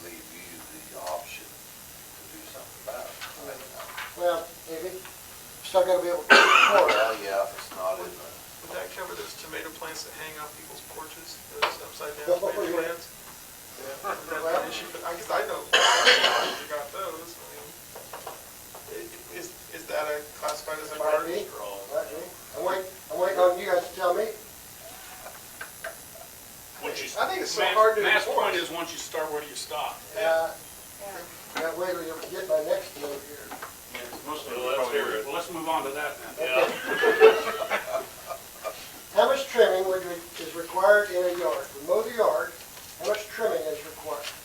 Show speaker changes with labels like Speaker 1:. Speaker 1: Well, maybe, still gotta be able to pour it.
Speaker 2: Well, yeah, if it's not in the,
Speaker 3: Would that cover those tomato plants that hang off people's porches, those upside down
Speaker 1: Well,
Speaker 3: tomato
Speaker 1: yeah.
Speaker 3: plants?
Speaker 1: Yeah.
Speaker 3: Is that
Speaker 1: Well-
Speaker 3: an issue? But I guess I know, you got those, I mean, i- is, is that a classified as a
Speaker 1: Might
Speaker 3: garden?
Speaker 1: be, might be. I'm waiting, I'm waiting on you guys to tell me.
Speaker 4: Once you.
Speaker 3: I think it's so
Speaker 4: Matt's-
Speaker 3: hard to
Speaker 4: Matt's
Speaker 3: enforce.
Speaker 4: point is, once you start, where do you stop?
Speaker 1: Uh, gotta wait till you get my next deal here.
Speaker 4: Mostly, well, let's move on to that then.
Speaker 1: How much trimming would, re- is required in a yard?